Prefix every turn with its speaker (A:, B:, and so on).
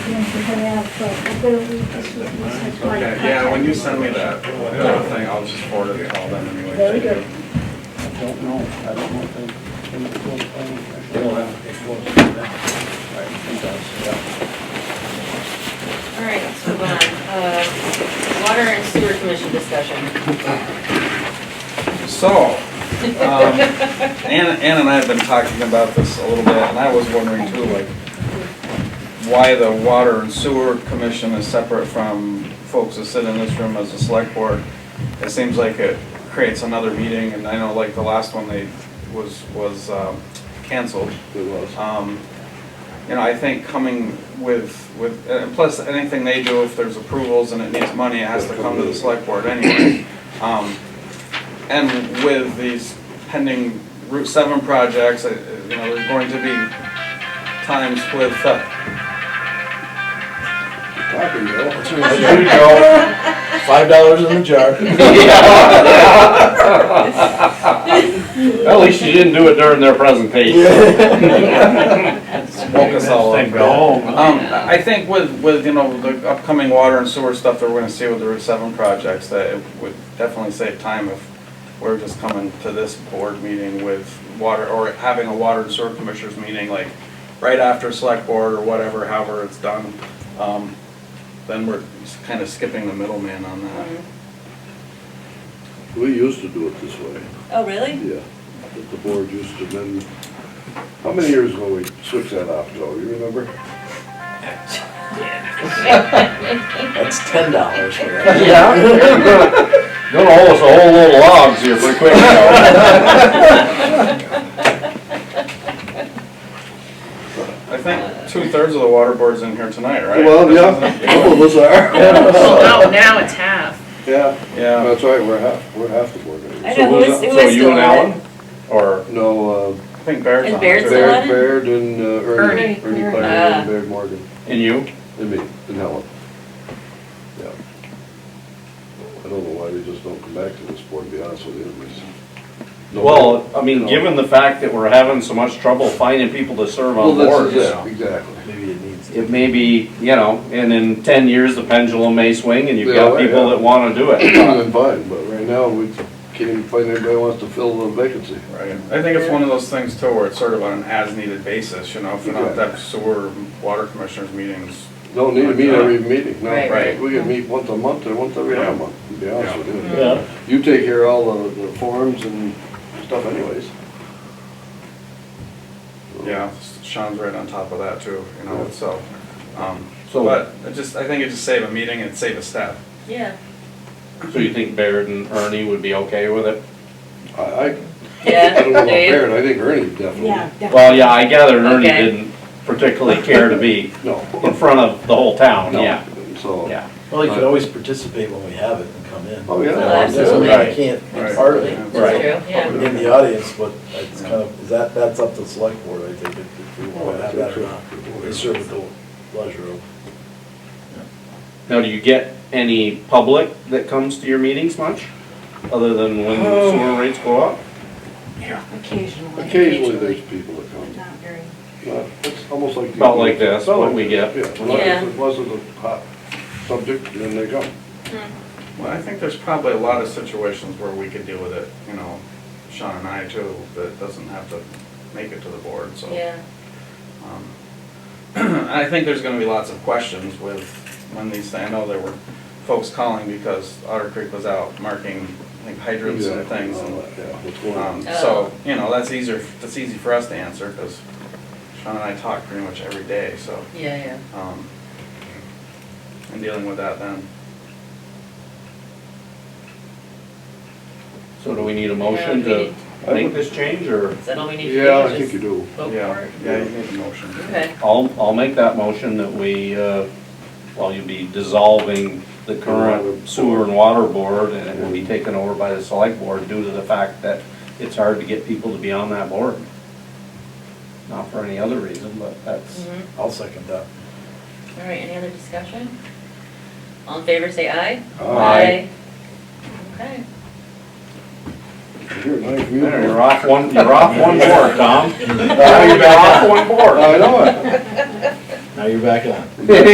A: to put out, but I'm gonna leave this with you so it's my
B: Okay, yeah, when you send me
A: contact
B: that, uh, thing, I'll just forward it to all them anyway.
A: Very good.
C: I don't know, I don't know if they, they were still playing.
D: All right, let's move on. Uh, Water and sewer commission discussion.
B: So, um, Ann, Ann and I have been talking about this a little bit, and I was wondering too, like, why the water and sewer commission is separate from folks that sit in this room as a select board. It seems like it creates another meeting, and I know like the last one they, was, was, um, canceled.
C: It was.
B: Um, You know, I think coming with, with, and plus, anything they do, if there's approvals and it needs money, it has to come to the select board anyway. Um, And with these pending Route 7 projects, uh, uh, you know, there's going to be times with, uh,
C: Talking,
B: there you go.
C: Five dollars in the jar.
E: At least you didn't do it during their presentation.
B: Woke us all up. Um, I I think with, with, you know, the upcoming water and sewer stuff that we're gonna see with the Route seven projects, that it would definitely save time if we're just coming to this board meeting with water, or having a water and sewer commissioners meeting, like, right after select board or whatever, however it's done. Um, Then we're kinda skipping the middleman on that.
F: Mm-hmm.
G: We used to do it this way,
F: Oh, really?
G: yeah, that the board used to then, how many years ago we switched that off, Joe, you remember?
C: That's ten dollars for that.
E: Yeah. Gonna hold us a whole little logs here pretty quick. you know.
B: I think two-thirds of the water board's in here tonight, right? Oh,
G: Well, yeah, a couple of us
D: Well,
G: are.
D: now it's half.
G: Yeah,
B: Yeah,
G: that's right, we're half, we're half the board.
F: I
G: members.
E: So
F: know, who
E: who's-
F: was, who
E: so
F: was
E: you
F: still
E: and
F: on
E: Alan?
F: it?
E: Or,
G: No, uh,
B: I think Baird's
F: And
B: on
F: Baird's
B: it, too.
F: the one?
G: Baird, Baird and uh, Ernie,
D: Ernie.
G: Ernie Clary
F: Ah.
C: Uh.
G: and Baird Morgan,
E: and you?
G: and me, and Helen. Yeah. I don't know why they just don't come back to this board, to be honest with you. it's- No.
E: Well, I mean,
G: No.
E: given the fact that we're having so much trouble finding people to serve
G: Well,
E: on
G: that's,
E: boards,
G: yeah, exactly.
C: Maybe it needs.
E: it may be, you know, and in ten years, the pendulum may swing and you've
G: Yeah,
E: got
G: right,
E: people
G: yeah.
E: that wanna do it.
G: I'm fine, but right now, we can't even find anybody who wants to fill the vacancy.
B: Right, I think it's one of those things too, where it's sort of on an as-needed basis, you know, if we're not
G: Exactly.
B: that sewer, water commissioners meetings.
G: Don't need to meet every meeting, no.
D: Right.
B: Right.
G: We can meet once a month or once every other month, to be honest with you.
E: Yeah.
G: You take care of all the, the forms and stuff anyways.
B: Yeah, Sean's right on top of that too, you know, so. um,
E: So-
B: But it just, I think it just save a meeting and save a step.
F: Yeah.
E: So you think Baird and Ernie would be okay with it?
G: I, I, I
F: Yeah,
G: don't know about
F: do you?
G: Baird, I think Ernie
A: contact. Yeah,
G: definitely,
A: definitely.
E: Well, yeah, I gather Ernie
F: Okay.
E: didn't particularly care to be in
G: no.
E: front of the whole town,
G: No.
E: yeah,
G: So.
E: yeah.
C: Well, you could always participate when we have it and come in.
G: Oh, yeah.
F: Well, absolutely.
C: You can't be part of it.
B: Right.
F: That's true, yeah.
C: In the audience, but it's kind of, is that, that's up to the select board, I think, if if we want to have that or not. It's sort of the pleasure of.
E: Now, do you get any public that comes to your meetings much, other than when
D: Oh.
E: sewer rates go up?
D: Occasionally.
G: Occasionally, there's people that come.
A: Not very-
G: Uh, It's almost like.
E: About like this,
G: About
E: what
G: like
E: we
G: this, Yeah, unless
F: Yeah.
G: it wasn't a hot subject, then they come.
D: Hmm.
B: Well, I think there's probably a lot of situations where we could deal with it, you know, Sean and I too, that doesn't have to make it to the board, so.
F: Yeah.
B: Um, I think there's gonna be lots of questions with, when these, I know there were folks calling because Otter Creek was out marking, like hydrants and
G: Exactly,
B: things.
G: all
B: and,
G: that, Yeah, what's going
B: um,
G: on?
B: So, you know, that's easier, that's easy for us to answer, because Sean and I talk pretty much every day, so,
D: Yeah,
B: um, and dealing with that then.
E: So do we need a motion
D: Yeah, we
E: to
D: need-
E: make this change, or?
D: yeah. Is that all we need to do?
G: Yeah, I
D: Just
G: think you do.
D: vote for
B: Yeah,
D: it?
B: yeah, you need a motion.
D: Okay,
E: I'll, I'll make that motion that we, uh, well, you'll be dissolving the current sewer and water board, and it will be taken over by the select board due to the fact that it's hard to get people to be on that board. Not for any other reason, but that's,
D: mhm.
C: I'll second that.
D: All right, any other discussion? All in favor, say aye.
E: Aye.
D: Okay.
G: You're a nice man.
E: there, you're off one, you're off one board, Tom.
G: Now you're
E: You're off one board.
G: I know it.
C: Now you're back on.